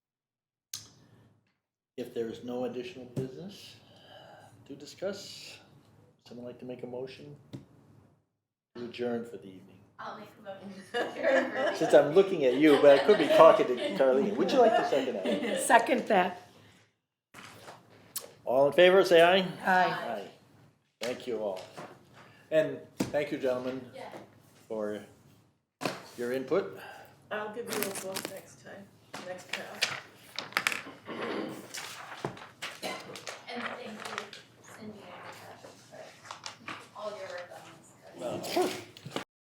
If there is no additional business to discuss, someone like to make a motion? to Adjourn for the evening. I'll make a motion to adjourn. Since I'm looking at you, but I could be talking to Carlene. Would you like to second that? Second that. All in favor, say aye. Uh, Aye. Aye. Thank you all. And thank you, gentlemen, Yeah. for your input. I'll give you a book next time, next time.